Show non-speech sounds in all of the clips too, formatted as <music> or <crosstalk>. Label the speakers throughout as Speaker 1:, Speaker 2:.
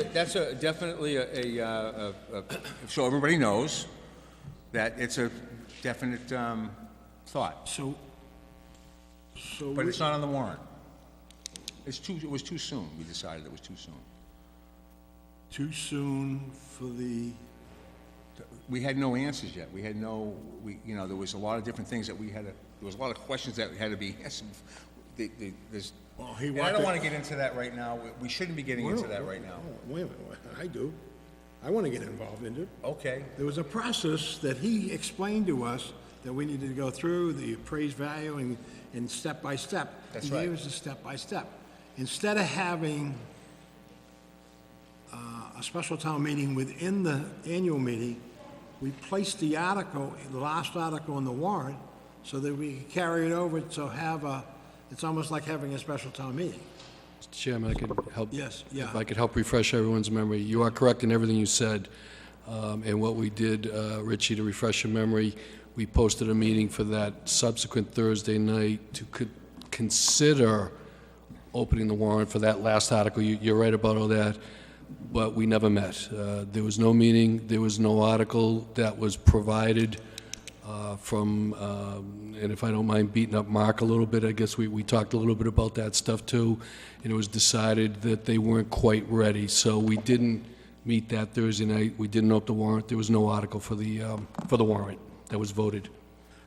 Speaker 1: that, that's a, definitely a, a, uh, a, a, so everybody knows that it's a definite, um, thought,
Speaker 2: So, so,
Speaker 1: but
Speaker 2: we-
Speaker 1: it's not on the warrant. It's too, it was too soon, we decided it was too soon.
Speaker 2: too soon for the,
Speaker 1: We had no answers yet, we had no, we, you know, there was a lot of different things that we had to, there was a lot of questions that had to be <laughs> answered. The, the, this,
Speaker 2: well, he
Speaker 1: and
Speaker 2: wanted...
Speaker 1: I don't wanna get into that right now, We- we shouldn't be getting into that right now.
Speaker 2: oh, Wait a minute, wait, I do. I want to get involved in it.
Speaker 1: Okay,
Speaker 2: There was a process that he explained to us that we needed to go through, the appraised value and, and step by step.
Speaker 1: That's
Speaker 2: He
Speaker 1: right.
Speaker 2: gave us a step by step. Instead of having uh, a special town meeting within the annual meeting, we placed the article, the last article in the warrant, so that we could carry it over to have a, it's almost like having a special town meeting.
Speaker 3: Mr. Chairman, I could help.
Speaker 2: Yes, yeah.
Speaker 3: If I could help refresh everyone's memory, you are correct in everything you said. Um, And what we did, uh, Richie, to refresh your memory, we posted a meeting for that subsequent Thursday night to co- consider opening the warrant for that last article. You- You're right about all that, but we never met. Uh, There was no meeting, there was no article that was provided uh, from, um, and if I don't mind beating up Mark a little bit, I guess we, we talked a little bit about that stuff too, and it was decided that they weren't quite ready, so we didn't meet that Thursday night, we didn't open the warrant, there was no article for the, um, for the warrant that was voted.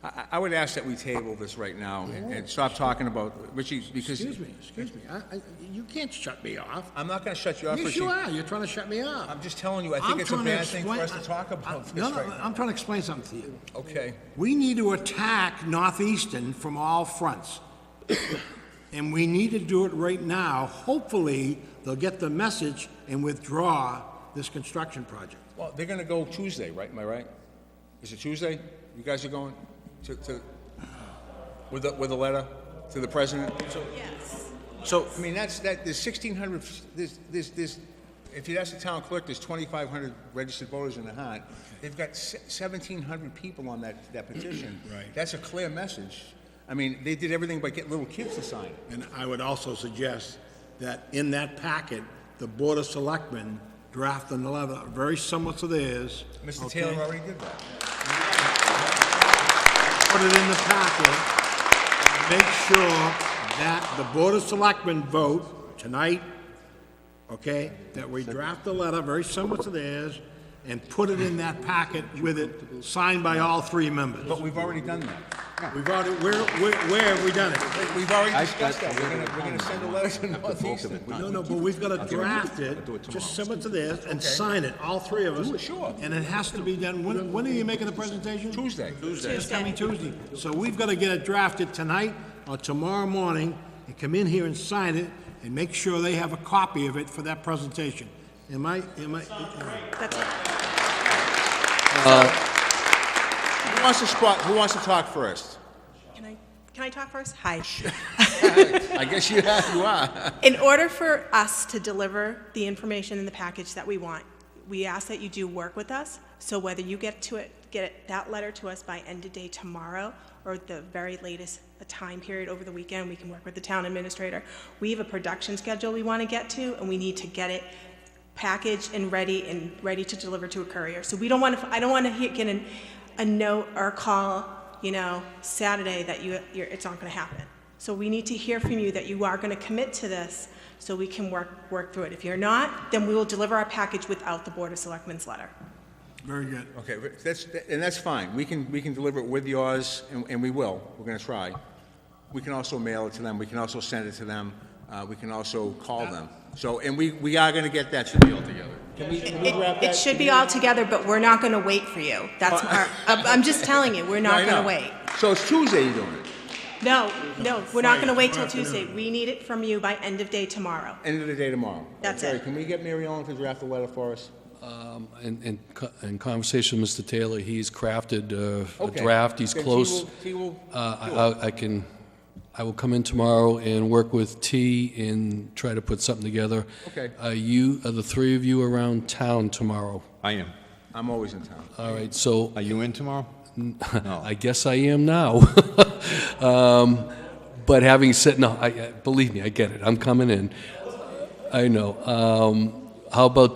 Speaker 1: I, I- I would ask that we table this right now and, and stop talking about, Richie, because
Speaker 2: Excuse me, excuse me, I, I, you can't shut me off.
Speaker 1: I'm not gonna shut you up,
Speaker 2: Yes,
Speaker 1: Richie.
Speaker 2: you are, you're trying to shut me up.
Speaker 1: I'm just telling you, I think it's a
Speaker 2: trying to
Speaker 1: bad thing for
Speaker 2: explain-
Speaker 1: us to talk
Speaker 2: I- I-
Speaker 1: about this
Speaker 2: No, no,
Speaker 1: right now.
Speaker 2: I'm trying to explain something to you.
Speaker 1: Okay,
Speaker 2: We need to attack Northeastern from all fronts. <coughs> And we need to do it right now. Hopefully, they'll get the message and withdraw this construction project.
Speaker 1: well, they're gonna go Tuesday, right, am I right? Is it Tuesday? You guys are going to, to, with a, with a letter to the president?
Speaker 4: Yes.
Speaker 1: So, I mean, that's, that, there's sixteen hundred, there's, there's, there's, if you ask the town clerk, there's twenty-five hundred registered voters in the hunt. They've got seventeen hundred people on that, that petition. Right. That's a clear message. I mean, they did everything but get little kids to sign it.
Speaker 2: And I would also suggest that in that packet, the Board of Selectmen draft another, very similar to theirs.
Speaker 1: Mr.
Speaker 2: okay?
Speaker 1: Taylor already did that.
Speaker 2: put it in the packet, make sure that the Board of Selectmen vote tonight, okay, that we draft a letter very similar to theirs, and put it in that packet with it, signed by all three members.
Speaker 1: But we've already done that.
Speaker 2: We've already, where, where, where have we done it?
Speaker 1: We've already
Speaker 5: I've
Speaker 1: discussed
Speaker 5: got
Speaker 1: that. We're gonna,
Speaker 5: a
Speaker 1: we're gonna send a letter <laughs> to Northeastern.
Speaker 2: No, no, but we've gotta draft it, just similar to theirs, and sign it, all three of us.
Speaker 1: sure.
Speaker 2: And it has to be done, when, when are you making the presentation?
Speaker 1: Tuesday. Tuesday.
Speaker 2: It's coming Tuesday. So we've got to get it drafted tonight or tomorrow morning and come in here and sign it and make sure they have a copy of it for that presentation. Am I, am I,
Speaker 4: That's it.
Speaker 1: Who wants to squat, who wants to talk first?
Speaker 4: Can I, can I talk first? Hi.
Speaker 1: I guess you have, you are.
Speaker 4: In order for us to deliver the information in the package that we want, we ask that you do work with us. So whether you get to it, get it- that letter to us by end of day tomorrow or at the very latest a time period over the weekend, we can work with the town administrator. We have a production schedule we want to get to and we need to get it packaged and ready and ready to deliver to a courier. So we don't want to, I don't want to get an, a note or a call, you know, Saturday that you, you're, it's not going to happen. So we need to hear from you that you are going to commit to this so we can work, work through it. If you're not, then we will deliver our package without the Board of Selectmen's letter.
Speaker 2: very good.
Speaker 1: Okay, but that's, and that's fine. We can, we can deliver it with yours, and, and we will. We're gonna try. We can also mail it to them. We can also send it to them. Uh, we can also call them. So, and we, we are gonna get that deal together. Can we, can we wrap
Speaker 4: It,
Speaker 1: that?
Speaker 4: it should be all together, but we're not going to wait for you. That's our, I'm I'm just telling you, we're
Speaker 1: No, I
Speaker 4: not going
Speaker 1: know.
Speaker 4: to wait.
Speaker 1: So it's Tuesday you're doing it,
Speaker 4: No, no, we're not going to
Speaker 2: Friday,
Speaker 4: wait till
Speaker 2: afternoon.
Speaker 4: Tuesday. We need it from you by end of day tomorrow.
Speaker 1: end of the day tomorrow.
Speaker 4: That's
Speaker 1: Jerry,
Speaker 4: it.
Speaker 1: Can we get Mary Ellen to draft the letter for us?
Speaker 3: Um, In, in co- in conversation with Mr. Taylor, he's crafted uh, a
Speaker 1: Okay.
Speaker 3: draft, he's
Speaker 1: Then she
Speaker 3: close.
Speaker 1: will- she will
Speaker 3: Uh, I- I I can, I will come in tomorrow and work with T and try to put something together.
Speaker 1: Okay.
Speaker 3: Are you, are the three of you around town tomorrow?
Speaker 5: I am.
Speaker 1: I'm always in town.
Speaker 3: All right, so
Speaker 5: Are you in tomorrow? No.
Speaker 3: I guess I am now. <laughs> Um, But having said, no, I, I- believe me, I get it, I'm coming in. I know. Um, How about